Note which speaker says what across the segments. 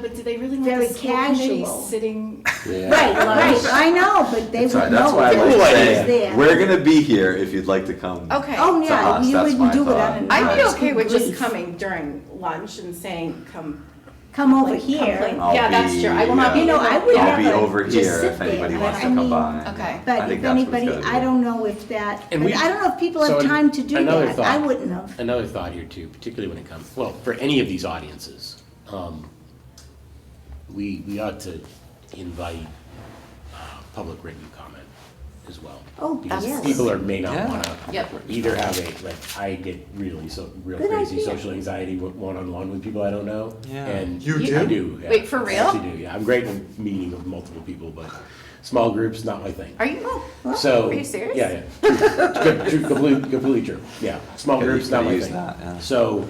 Speaker 1: But do they really want
Speaker 2: Very
Speaker 1: the school committee
Speaker 2: casual.
Speaker 1: sitting?
Speaker 3: Yeah.
Speaker 2: Right, right, I know, but they would
Speaker 3: That's
Speaker 2: know.
Speaker 3: why, that's why I
Speaker 2: if it
Speaker 3: like
Speaker 2: was
Speaker 3: saying,
Speaker 2: there.
Speaker 3: we're gonna be here if you'd like to come.
Speaker 1: Okay.
Speaker 2: Oh,
Speaker 3: to
Speaker 2: yeah,
Speaker 3: us,
Speaker 2: you
Speaker 3: that's
Speaker 2: wouldn't
Speaker 3: my
Speaker 2: do it
Speaker 3: thought.
Speaker 2: on a.
Speaker 1: I'd be
Speaker 2: on a
Speaker 1: okay with
Speaker 2: brief.
Speaker 1: just coming during lunch and saying, come.
Speaker 2: Come over
Speaker 1: like, come play."
Speaker 2: here,
Speaker 3: I'll
Speaker 1: Yeah, that's
Speaker 3: be,
Speaker 1: true. I will not be.
Speaker 3: uh,
Speaker 2: You know, I
Speaker 1: able-
Speaker 2: would
Speaker 1: yeah.
Speaker 2: have
Speaker 3: I'll be
Speaker 2: Yeah, but
Speaker 3: over
Speaker 2: just
Speaker 3: here
Speaker 2: sit
Speaker 3: if anybody
Speaker 2: there.
Speaker 3: wants to
Speaker 2: I
Speaker 3: come
Speaker 2: mean,
Speaker 3: by.
Speaker 1: Okay.
Speaker 3: I
Speaker 2: but
Speaker 3: think
Speaker 2: if
Speaker 3: that's what it's
Speaker 2: anybody,
Speaker 3: gotta be.
Speaker 2: I don't know if that, I
Speaker 4: And we-
Speaker 2: don't know if people have
Speaker 4: so an-
Speaker 2: time to do
Speaker 4: another
Speaker 2: that, I
Speaker 4: thought.
Speaker 2: wouldn't have.
Speaker 4: Another thought here too, particularly when it comes, well, for any of these audiences, um, we, we ought to invite, uh, public written comment as well.
Speaker 2: Oh,
Speaker 4: Because
Speaker 2: yes.
Speaker 4: people are, may not
Speaker 3: Yeah.
Speaker 4: wanna
Speaker 1: Yep.
Speaker 4: either have a, like, I get really so, real
Speaker 2: Good
Speaker 4: crazy
Speaker 2: idea.
Speaker 4: social anxiety w- one-on-one with people I don't know.
Speaker 3: Yeah.
Speaker 4: And
Speaker 5: You
Speaker 4: I
Speaker 5: do?
Speaker 4: do. yeah.
Speaker 1: Wait, for real?
Speaker 4: I actually do, yeah. I'm great with meeting with multiple people, but small groups, not my thing.
Speaker 1: Are you?
Speaker 4: So.
Speaker 1: Are you serious?
Speaker 4: Yeah, yeah. True, true, Completely, completely true. Yeah, small
Speaker 3: Gotta-
Speaker 4: groups, not
Speaker 3: gotta
Speaker 4: my
Speaker 3: use
Speaker 4: thing.
Speaker 3: that, yeah.
Speaker 4: So,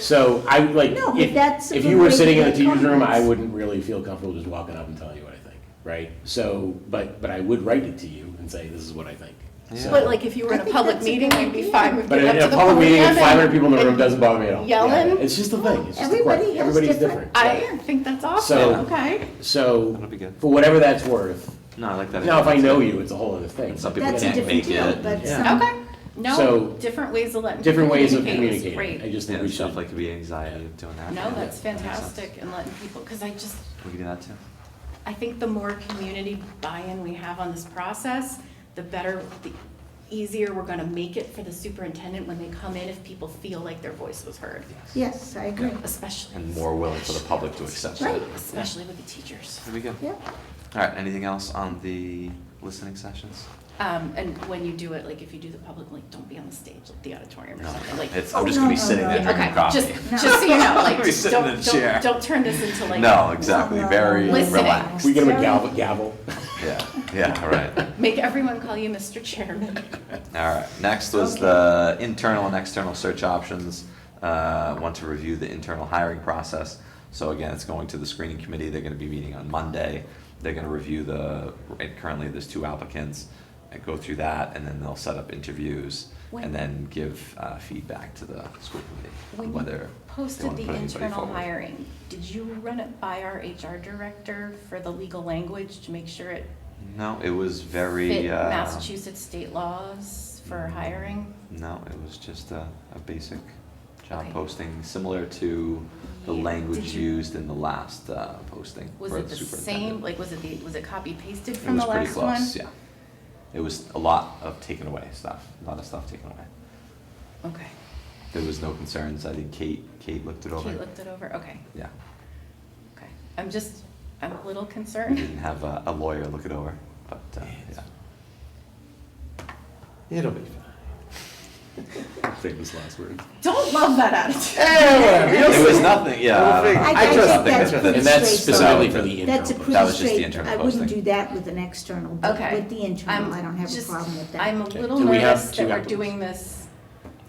Speaker 4: so I would, like,
Speaker 2: No, but that's
Speaker 4: if,
Speaker 2: a
Speaker 4: if
Speaker 2: good
Speaker 4: you were
Speaker 2: way to
Speaker 4: sitting in the
Speaker 2: get
Speaker 4: teacher's room, I
Speaker 2: comments.
Speaker 4: wouldn't really feel comfortable just walking up and telling you what I think, right? So, but, but I would write it to you and say, this is what I think. So-
Speaker 1: But like if you were
Speaker 2: I
Speaker 1: in a
Speaker 2: think
Speaker 1: public
Speaker 2: that's a
Speaker 1: meeting,
Speaker 2: good
Speaker 1: you'd be
Speaker 2: idea.
Speaker 1: fine with
Speaker 4: But
Speaker 1: getting up
Speaker 4: in
Speaker 1: to
Speaker 4: a
Speaker 1: the
Speaker 4: public meeting
Speaker 1: podium
Speaker 4: with five hundred people in the
Speaker 1: and-
Speaker 4: room doesn't bother me at all. Yeah,
Speaker 1: yelling.
Speaker 4: It's just a thing, it's just a
Speaker 2: Everybody
Speaker 4: quirk,
Speaker 2: has
Speaker 4: everybody's
Speaker 2: different-
Speaker 4: different.
Speaker 1: I think that's awesome.
Speaker 4: So-
Speaker 1: Okay.
Speaker 4: So,
Speaker 3: That'll be good.
Speaker 4: for whatever that's worth,
Speaker 3: No, I like that.
Speaker 4: now if I
Speaker 3: idea.
Speaker 4: know you, it's a whole other thing.
Speaker 3: Some people
Speaker 2: That's a
Speaker 3: can't
Speaker 2: different
Speaker 3: make
Speaker 2: deal,
Speaker 3: it.
Speaker 2: but
Speaker 3: Yeah.
Speaker 2: some,
Speaker 1: Okay. No,
Speaker 4: um, So-
Speaker 1: different ways of letting.
Speaker 4: Different
Speaker 1: people
Speaker 4: ways of
Speaker 1: communicate is
Speaker 4: communicating, I
Speaker 1: Great.
Speaker 4: just think
Speaker 3: Yeah,
Speaker 4: we
Speaker 3: stuff
Speaker 4: should.
Speaker 3: like could be anxiety of doing that.
Speaker 1: No,
Speaker 3: Yeah.
Speaker 1: that's
Speaker 3: That makes sense.
Speaker 1: fantastic and letting people, because I just,
Speaker 3: We could do that too.
Speaker 1: I think the more community buy-in we have on this process, the better, the easier we're gonna make it for the superintendent when they come in if people feel like their voice was heard,
Speaker 2: yes, I agree,
Speaker 1: especially.
Speaker 3: And more willing for the public to accept
Speaker 2: Right.
Speaker 3: it.
Speaker 1: Especially with the teachers.
Speaker 3: That'd be good.
Speaker 2: yeah.
Speaker 3: All right, anything else on the listening sessions?
Speaker 1: Um, and when you do it, like if you do the public, like don't be on the stage, like the auditorium or
Speaker 3: No,
Speaker 1: something, like.
Speaker 3: it's,
Speaker 2: Oh,
Speaker 3: I'm just gonna
Speaker 2: no,
Speaker 3: be
Speaker 2: no,
Speaker 3: sitting
Speaker 2: no.
Speaker 3: there
Speaker 2: Yeah,
Speaker 3: drinking
Speaker 1: Okay, just,
Speaker 3: coffee.
Speaker 1: just so you know, like,
Speaker 3: Be sitting in a
Speaker 1: don't,
Speaker 3: chair.
Speaker 1: don't, don't turn this into like.
Speaker 3: No, exactly,
Speaker 2: no,
Speaker 3: very
Speaker 2: no.
Speaker 1: Listening.
Speaker 3: relaxed.
Speaker 4: We get them a
Speaker 2: uh, Sarah?
Speaker 4: gavel, gavel.
Speaker 3: Yeah, yeah, right.
Speaker 1: Make everyone call you Mr. Chairman.
Speaker 3: All right, next was the internal and external search options. Uh, Want to review the internal hiring process. So again, it's going to the screening committee, they're gonna be meeting on Monday. They're gonna review the, and currently there's two applicants, and go through that, and then they'll set up interviews.
Speaker 1: When-
Speaker 3: And then give uh, feedback to the school committee,
Speaker 1: When
Speaker 3: whether
Speaker 1: you
Speaker 3: they
Speaker 1: posted
Speaker 3: wanna
Speaker 1: the
Speaker 3: put anybody
Speaker 1: internal
Speaker 3: forward.
Speaker 1: hiring, did you run it by our HR director for the legal language to make sure it
Speaker 3: No, it was
Speaker 1: fit
Speaker 3: very, uh, Mm-hmm.
Speaker 1: Massachusetts state laws for hiring?
Speaker 3: No, it was just a, a basic job
Speaker 1: Okay.
Speaker 3: posting, similar to the
Speaker 1: Yeah.
Speaker 3: language
Speaker 1: Did you-
Speaker 3: used in the last uh, posting.
Speaker 1: Was
Speaker 3: for
Speaker 1: it the same,
Speaker 3: superintendent.
Speaker 1: like, was it the, was it copy pasted
Speaker 3: It
Speaker 1: from
Speaker 3: was
Speaker 1: the
Speaker 3: pretty
Speaker 1: last one?
Speaker 3: close, yeah. It was a lot of taken away stuff, a lot of stuff taken away.
Speaker 1: Okay,
Speaker 3: There was no concerns, I think Kate, Kate looked it over.
Speaker 1: Kate looked it over, okay,
Speaker 3: Yeah,
Speaker 1: okay. I'm just, I'm a little
Speaker 3: we
Speaker 1: concerned.
Speaker 3: didn't have a a lawyer look it over, but, uh, yeah.
Speaker 5: It'll be fine.
Speaker 4: Famous last words.
Speaker 1: Don't love that attitude.
Speaker 3: It was nothing, yeah. I don't know.
Speaker 2: I- I
Speaker 3: I
Speaker 2: think
Speaker 3: just think
Speaker 2: that's
Speaker 3: that-
Speaker 2: pretty
Speaker 4: And that's
Speaker 2: straight
Speaker 4: specifically for
Speaker 3: forward.
Speaker 4: the internal.
Speaker 2: That's a
Speaker 4: vote.
Speaker 3: That
Speaker 2: pretty
Speaker 3: was just the
Speaker 2: straight,
Speaker 3: internal
Speaker 2: I wouldn't
Speaker 3: posting.
Speaker 2: do that with an external, but
Speaker 1: Okay.
Speaker 2: with the internal,
Speaker 1: I'm
Speaker 2: I don't have a
Speaker 1: just-
Speaker 2: problem with that.
Speaker 1: I'm a
Speaker 4: Okay.
Speaker 1: little
Speaker 4: Do we have
Speaker 1: nervous
Speaker 4: two
Speaker 1: that we're
Speaker 4: applicants?
Speaker 1: doing this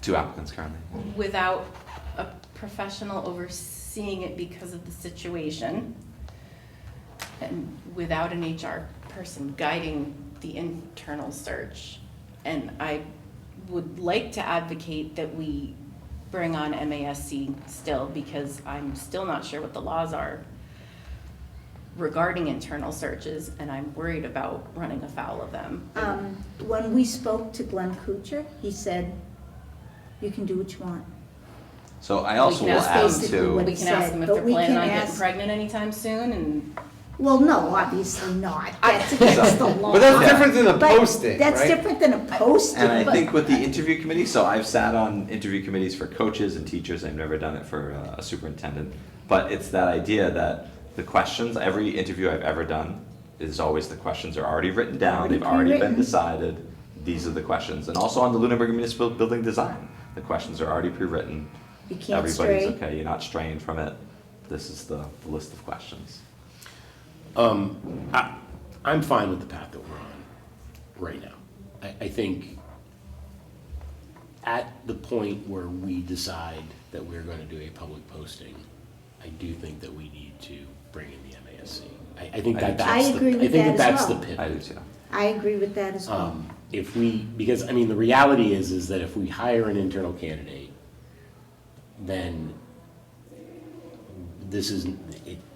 Speaker 3: Two applicants currently.
Speaker 1: without a professional overseeing it because of the situation, and without an HR person guiding the internal search. And I would like to advocate that we bring on MASC still, because I'm still not sure what the laws are regarding internal searches, and I'm worried about running afoul of them.
Speaker 2: Um, when we spoke to Glenn Kuchar, he said, you can do what you want.
Speaker 3: So I also
Speaker 1: can
Speaker 3: will
Speaker 1: ask
Speaker 3: add
Speaker 1: those-
Speaker 2: what
Speaker 3: to,
Speaker 1: We can ask them if
Speaker 2: But
Speaker 1: they're
Speaker 2: we
Speaker 1: planning
Speaker 2: can
Speaker 1: on getting
Speaker 2: ask-
Speaker 1: pregnant anytime soon, and
Speaker 2: Well, no, obviously not,
Speaker 1: I-
Speaker 2: that's against the law.
Speaker 5: But that's
Speaker 3: Yeah.
Speaker 5: different than a
Speaker 2: But
Speaker 5: posting, right?
Speaker 2: That's different than a posting.
Speaker 3: and I
Speaker 1: but-
Speaker 3: think with the interview committee, so I've sat on interview committees for coaches and teachers, I've never done it for uh, a superintendent. But it's that idea that the questions, every interview I've ever done, is always the questions are already written down,
Speaker 2: Already
Speaker 3: they've already been
Speaker 2: pre-written.
Speaker 3: decided. These are the questions, and also on the Lunenburg Municipal Building Design, the questions are already pre-written.
Speaker 2: You can't
Speaker 3: Everybody's
Speaker 2: stray.
Speaker 3: okay, you're not straying from it, this is the the list of questions.
Speaker 4: Um, I, I'm fine with the path that we're on right now. I, I think at the point where we decide that we're gonna do a public posting, I do think that we need to bring in the MASC. I, I think that
Speaker 3: I do too.
Speaker 4: that's
Speaker 2: I
Speaker 4: the,
Speaker 2: agree
Speaker 4: I
Speaker 2: with
Speaker 4: think that
Speaker 2: that as
Speaker 4: that's the
Speaker 2: well.
Speaker 4: pivot.
Speaker 3: I do too.
Speaker 2: I agree with that as well.
Speaker 4: Um, if we, because, I mean, the reality is, is that if we hire an internal candidate, then this is, it,